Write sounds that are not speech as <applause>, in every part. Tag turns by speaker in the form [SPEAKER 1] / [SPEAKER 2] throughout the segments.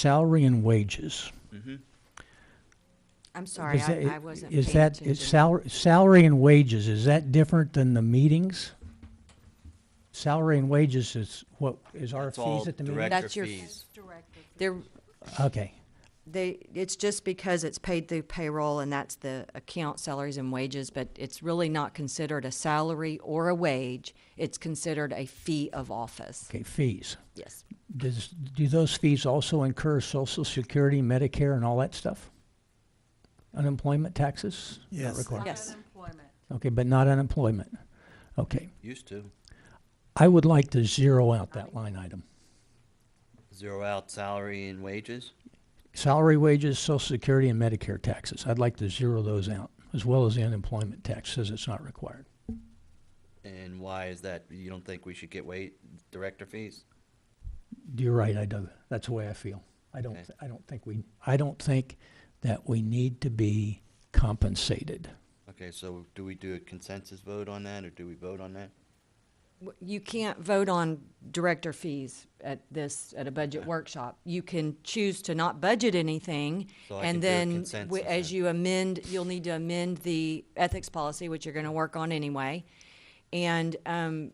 [SPEAKER 1] salary and wages.
[SPEAKER 2] I'm sorry,
[SPEAKER 1] Is that-
[SPEAKER 2] I, I wasn't paying
[SPEAKER 1] Is that,
[SPEAKER 2] attention.
[SPEAKER 1] it's salary, salary and wages, is that different than the meetings? Salary and wages is what, is our
[SPEAKER 3] It's all
[SPEAKER 1] fees at the meeting?
[SPEAKER 3] director
[SPEAKER 2] That's your-
[SPEAKER 3] fees.
[SPEAKER 2] They're,
[SPEAKER 1] Okay,
[SPEAKER 2] they, it's just because it's paid through payroll and that's the account salaries and wages, but it's really not considered a salary or a wage. It's considered a fee of office.
[SPEAKER 1] okay, fees.
[SPEAKER 2] Yes,
[SPEAKER 1] Does, do those fees also incur social security, Medicare, and all that stuff? Unemployment taxes? Not
[SPEAKER 4] Yes.
[SPEAKER 1] required.
[SPEAKER 2] yes.
[SPEAKER 1] Okay, but not unemployment. Okay,
[SPEAKER 3] Used to.
[SPEAKER 1] I would like to zero out that line item.
[SPEAKER 3] Zero out salary and wages.
[SPEAKER 1] Salary, wages, social security, and Medicare taxes. I'd like to zero those out, as well as the unemployment tax says it's not required.
[SPEAKER 3] And why is that? You don't think we should get wait, director fees?
[SPEAKER 1] You're right, I do. That's the way I feel. I don't,
[SPEAKER 3] Okay.
[SPEAKER 1] I don't think we, I don't think that we need to be compensated.
[SPEAKER 3] Okay, so do we do a consensus vote on that or do we vote on that?
[SPEAKER 2] W- You can't vote on director fees at this, at a budget workshop. You can choose to not budget anything.
[SPEAKER 3] So I
[SPEAKER 2] And
[SPEAKER 3] can do a
[SPEAKER 2] then,
[SPEAKER 3] consensus
[SPEAKER 2] w- as
[SPEAKER 3] then.
[SPEAKER 2] you amend, you'll need to amend the ethics policy, which you're gonna work on anyway. And, um,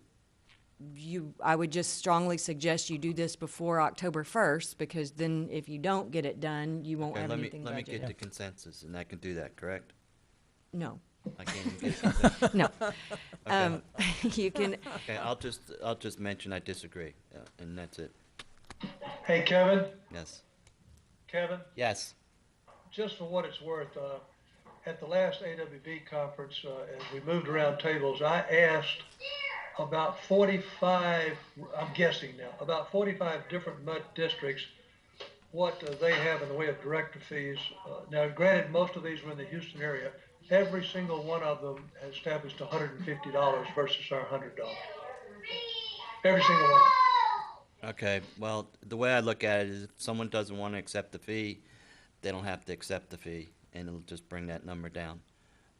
[SPEAKER 2] you, I would just strongly suggest you do this before October first, because then if you don't get it done, you won't
[SPEAKER 3] Okay,
[SPEAKER 2] have
[SPEAKER 3] let me,
[SPEAKER 2] anything
[SPEAKER 3] let me get
[SPEAKER 2] budgeted.
[SPEAKER 3] the consensus and I can do that, correct?
[SPEAKER 2] No,
[SPEAKER 3] I can't even get
[SPEAKER 2] <laughs>
[SPEAKER 3] consensus.
[SPEAKER 2] no.
[SPEAKER 3] <laughs> Okay.
[SPEAKER 2] Um, <laughs> you can,
[SPEAKER 3] Okay, I'll just, I'll just mention I disagree uh, and that's it.
[SPEAKER 5] Hey, Kevin,
[SPEAKER 3] Yes.
[SPEAKER 5] Kevin,
[SPEAKER 3] Yes.
[SPEAKER 5] just for what it's worth, uh, at the last AWB conference, uh, as we moved around tables, I asked about 45, I'm guessing now, about 45 different MUD districts what uh, they have in the way of director fees. Uh, now, granted, most of these were in the Houston area. Every single one of them has established $150 versus our $100. Every single one. of them.
[SPEAKER 3] Okay, well, the way I look at it is if someone doesn't want to accept the fee, they don't have to accept the fee and it'll just bring that number down.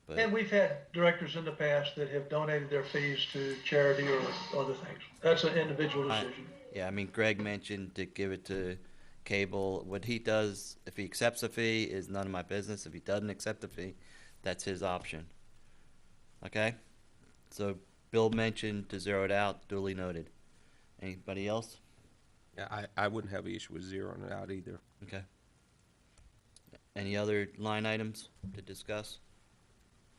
[SPEAKER 3] But.
[SPEAKER 5] And we've had directors in the past that have donated their fees to charity or other things. That's an individual
[SPEAKER 3] I-
[SPEAKER 5] decision.
[SPEAKER 3] Yeah, I mean, Greg mentioned to give it to cable. What he does, if he accepts a fee, is none of my business. If he doesn't accept the fee, that's his option. Okay? So Bill mentioned to zero it out, duly noted. Anybody else?
[SPEAKER 6] Yeah, I, I wouldn't have an issue with zeroing it out either.
[SPEAKER 3] Okay. Any other line items to discuss?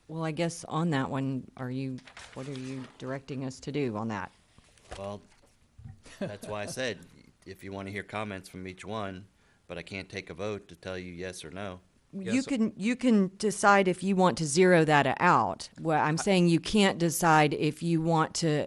[SPEAKER 2] well, I guess on that one, are you, what are you directing us to do on that?
[SPEAKER 3] Well, that's why I said, if you want to hear comments from each one, but I can't take a vote to tell you yes or no.
[SPEAKER 2] You can, you can decide if you want to zero that out. Well, I'm saying you can't decide if you want to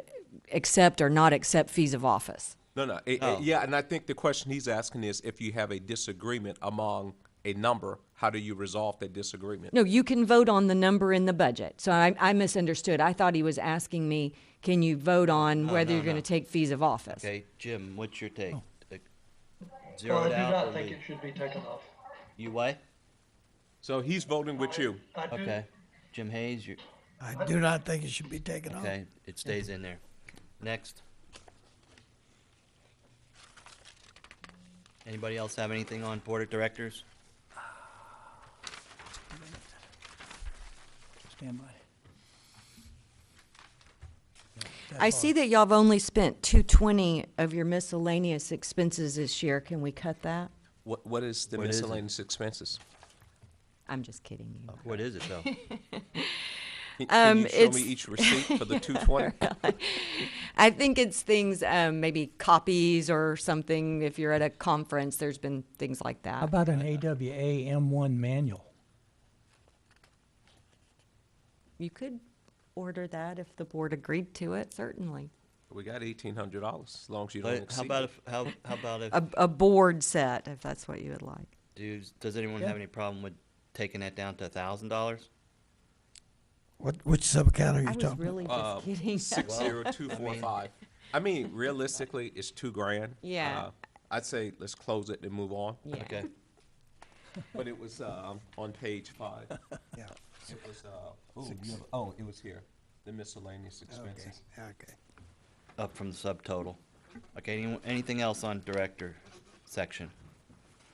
[SPEAKER 2] accept or not accept fees of office.
[SPEAKER 6] No, no, it- it-
[SPEAKER 3] Oh.
[SPEAKER 6] yeah, and I think the question he's asking is if you have a disagreement among a number, how do you resolve that disagreement?
[SPEAKER 2] No, you can vote on the number in the budget. So I, I misunderstood. I thought he was asking me, can you vote on whether
[SPEAKER 3] no,
[SPEAKER 2] you're going
[SPEAKER 3] no.
[SPEAKER 2] to take fees of office?
[SPEAKER 3] Okay, Jim, what's your take?
[SPEAKER 6] Oh.
[SPEAKER 3] Uh,
[SPEAKER 5] Well,
[SPEAKER 3] Zero
[SPEAKER 5] I
[SPEAKER 3] it
[SPEAKER 5] do
[SPEAKER 3] out or
[SPEAKER 5] not think it
[SPEAKER 3] leave?
[SPEAKER 5] should be taken off.
[SPEAKER 3] You what?
[SPEAKER 6] So he's voting with you.
[SPEAKER 5] I do-
[SPEAKER 3] Okay, Jim Hayes, you,
[SPEAKER 4] I do not think it should be taken off.
[SPEAKER 3] okay, it stays in there. Next. Anybody else have anything on board of directors?
[SPEAKER 4] Stand by.
[SPEAKER 2] I see that y'all have only spent two twenty of your miscellaneous expenses this year. Can we cut that?
[SPEAKER 6] What, what is the
[SPEAKER 3] What is it?
[SPEAKER 6] miscellaneous expenses?
[SPEAKER 2] I'm just kidding you.
[SPEAKER 3] What is it
[SPEAKER 6] <laughs>
[SPEAKER 3] though?
[SPEAKER 6] Can- Can
[SPEAKER 2] Um,
[SPEAKER 6] you show
[SPEAKER 2] it's-
[SPEAKER 6] me each receipt for the
[SPEAKER 3] <laughs>
[SPEAKER 6] two twenty?
[SPEAKER 2] I think it's things, um, maybe copies or something. If you're at a conference, there's been things like
[SPEAKER 1] How
[SPEAKER 2] that.
[SPEAKER 1] about
[SPEAKER 3] Uh,
[SPEAKER 1] an AWA M1 manual?
[SPEAKER 2] You could order that if the board agreed to it, certainly.
[SPEAKER 6] We got eighteen hundred dollars, as long as you don't
[SPEAKER 3] But
[SPEAKER 6] exceed.
[SPEAKER 3] how about
[SPEAKER 6] it. Uh,
[SPEAKER 3] if, how, how about if,
[SPEAKER 2] A, a board set, if that's what you would like.
[SPEAKER 3] do, does anyone have any problem with taking that down to a thousand dollars?
[SPEAKER 4] What, which sub-account are you
[SPEAKER 2] I
[SPEAKER 4] talking
[SPEAKER 2] was
[SPEAKER 4] about?
[SPEAKER 2] really
[SPEAKER 6] Uh,
[SPEAKER 2] just kidding. <laughs>
[SPEAKER 6] Six zero two four five. I mean, realistically, it's two grand.
[SPEAKER 2] Yeah.
[SPEAKER 6] Uh, I'd say let's close it and move on.
[SPEAKER 2] Yeah.
[SPEAKER 3] Okay,
[SPEAKER 6] <laughs> But it was um, on page five.
[SPEAKER 4] Yeah,
[SPEAKER 6] It was, uh, ooh, you have- oh, it was here, the miscellaneous expenses.
[SPEAKER 4] okay.
[SPEAKER 3] up from the subtotal. Okay, anyone, anything else on director section?